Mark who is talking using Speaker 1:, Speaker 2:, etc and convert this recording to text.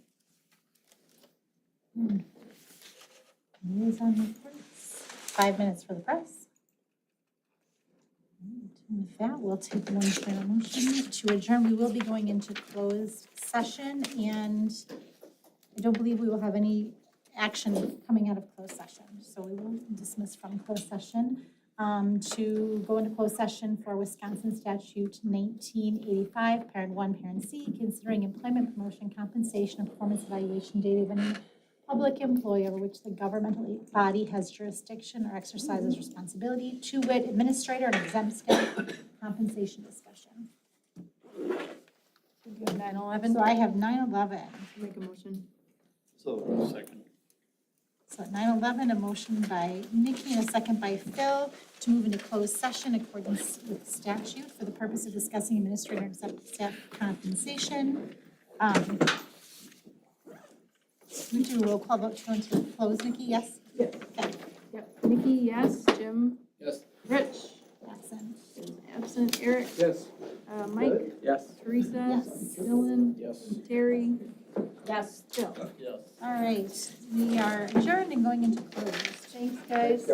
Speaker 1: Liaison reports, five minutes for the press. And With that, we'll take one final motion to adjourn. We will be going into closed session and I don't believe we will have any action coming out of closed session. So we will dismiss from closed session um, to go into closed session for Wisconsin statute nineteen eighty-five, parent one, parent C, considering employment, promotion, compensation, and performance evaluation data of any public employee over which the governmental body has jurisdiction or exercises responsibility, to wit, administrator and exempt staff compensation discussion.
Speaker 2: Nine eleven,
Speaker 1: So I have nine eleven.
Speaker 2: make a motion.
Speaker 3: So, second.
Speaker 1: So at nine eleven, a motion by Nikki and a second by Phil to move into closed session in accordance with statute for the purpose of discussing administrator and exempt staff compensation. Um, We do a roll call vote to go into closed. Nikki, yes?
Speaker 2: Yes.
Speaker 1: Okay,
Speaker 2: Yep, Nikki, yes, Jim,
Speaker 3: Yes.
Speaker 2: Rich,
Speaker 1: Jackson,
Speaker 2: is absent, Eric,
Speaker 3: Yes.
Speaker 2: uh, Mike,
Speaker 3: Yes.
Speaker 2: Teresa,
Speaker 1: yes?
Speaker 2: Dylan,
Speaker 3: Yes.
Speaker 2: Terry,
Speaker 1: Yes.
Speaker 2: Jill.
Speaker 3: Yes.
Speaker 1: All right, we are adjourned and going into closed.
Speaker 2: Thanks, guys.